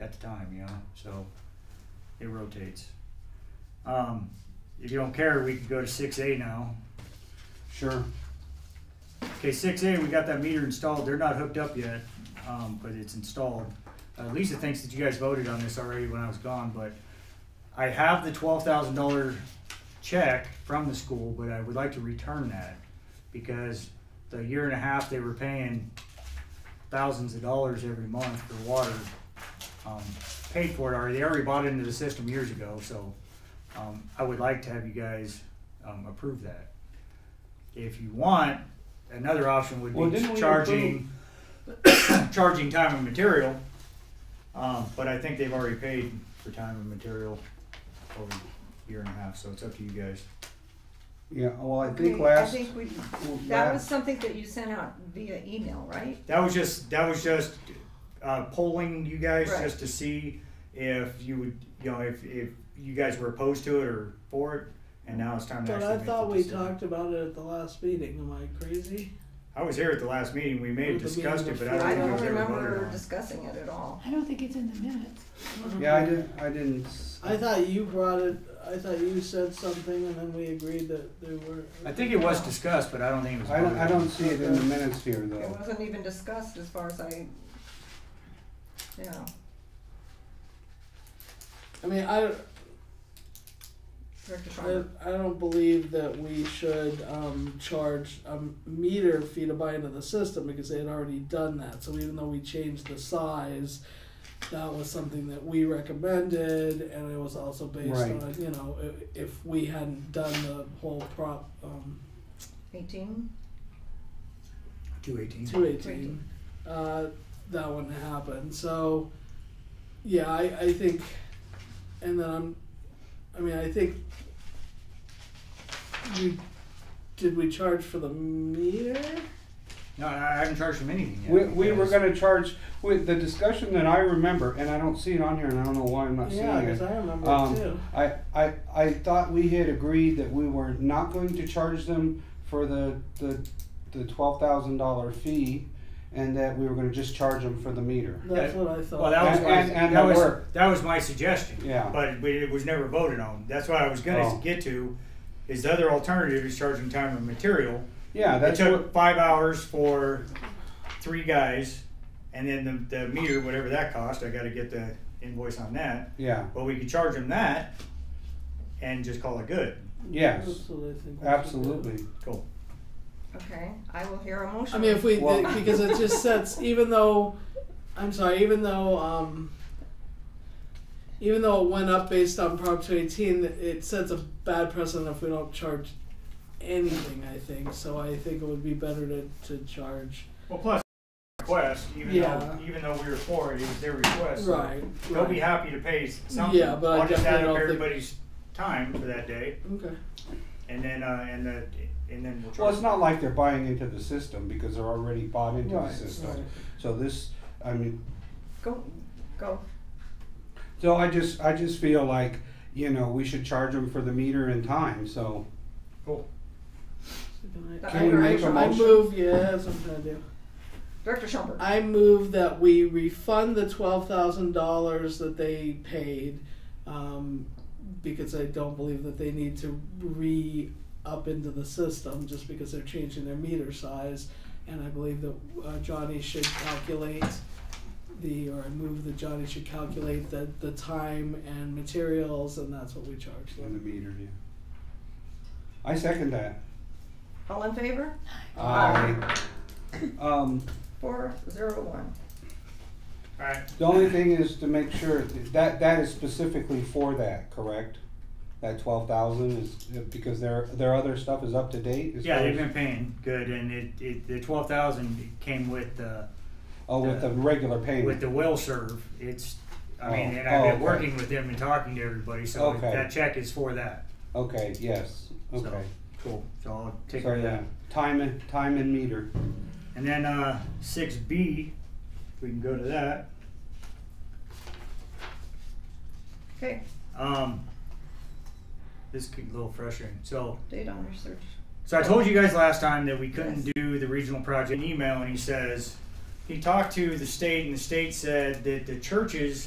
at the time, you know, so it rotates. Um, if you don't care, we can go to six A now. Sure. Okay, six A, we got that meter installed, they're not hooked up yet, um, but it's installed. Uh, Lisa thinks that you guys voted on this already when I was gone, but I have the twelve thousand dollar check from the school, but I would like to return that. Because the year and a half they were paying thousands of dollars every month for water, um, paid for it already, they already bought into the system years ago, so, um, I would like to have you guys, um, approve that. If you want, another option would Well, didn't be we charging, charging time and material. Um, but I think they've already paid for time and material over a year and a half, so it's up to you guys. Yeah, well, I Okay, think last, I think we, that was last, something that you sent out via email, right? That was just, that was just, uh, polling you guys Right. just to see if you would, you know, if, if you guys were opposed to it or for it. And now it's time to But actually I make the thought we decision. talked about it at the last meeting. Am I crazy? I was here at the last meeting, we may have Or the meeting discussed it, but I before. I don't don't think it was ever voted remember on. discussing it at all. I don't think it's in the minutes. yeah, I didn't, I didn't, s- I thought you brought it. I thought you said something, and then we agreed that there were. I think it was discussed, but I don't think it was. I don't, voted I on. don't see it in the minutes here It though. wasn't even discussed as far as I, you know, I mean, I, Director I, Schreiber. I don't believe that we should um, charge a meter fee to buy into the system because they had already done that. So even though we changed the size, that was something that we recommended, and it was also based Right. on you know if, if we hadn't done the whole prop um, eighteen, Two eighteen. two eighteen. Uh, that wouldn't happen. So, yeah, I, I think, and then I'm, I mean, I think you did we charge for the meter? No, I I haven't charged them anything yet. We, we were because- gonna charge, with the discussion that I remember, and I don't see it on here and I don't know why I'm not seeing Yeah, because it. I remember it too. Um, I, I, I thought we had agreed that we were not going to charge them for the, the, the twelve thousand dollar fee and that we were gonna just charge them for the meter. That's yeah. what I thought. Well, that was And- my, and- and that the was work. that was my suggestion. Yeah. But we, it was never voted on. That's what I was going to Oh. get to. Is the other alternative is charging time and material. Yeah, It that's took what, five hours for three guys, and then the, the meter, whatever that cost, I got to get the invoice on that. yeah, But we could charge them that, and just call it good. yes, That's what I think we should do. absolutely. Cool. okay, I will hear a motion. I mean, if we Well- because it just sets. Even though, I'm sorry. Even though, um, even though it went up based on Prop 218, it sets a bad precedent if we don't charge anything. I think so. I think it would be better to, to charge. Well, plus request, even Yeah. though even though we were for it, it was their request. so Right. They'll be right. happy to pay something. Yeah, but I I'll just definitely add up don't think- everybody's time for that day, Okay. and then uh, and the and then we'll. Well, charge it's not like they're buying into the system because they're already bought into the Right, system. right. So this, I mean, Go, go, so I just, I just feel like, you know, we should charge them for the meter and time, so. Can we make a I motion? move. Yeah, that's what I'm gonna do. Director Schomburg. I move that we refund the twelve thousand dollars that they paid, um, because I don't believe that they need to re up into the system just because they're changing their meter size, and I believe that uh, Johnny should calculate the or I move that Johnny should calculate the the time and materials, and that's what we charge On them. the meter, yeah. I second that. All in favor? Aye. Um, Four, zero, one. it. All right. the only thing is to make sure, that, that is specifically for that, correct? That twelve thousand is, uh, because their, their other stuff is up to date? as Yeah, far they've as- been paying good, and it, it the twelve thousand came with uh, the Oh, with the regular payment? with the will serve. It's I mean, Oh, and I've oh, been okay. working with them and talking to everybody, so Okay. that check is for that. Okay, yes, So, okay. cool. So I'll take So, care of yeah, that. time and, time and meter. And then uh, 6B, if we can go to that. Okay, Um, this could be a little frustrating. So, date on research. so I told you guys last time that we couldn't do the regional project An email, and he says he talked to the state, and the state said that the churches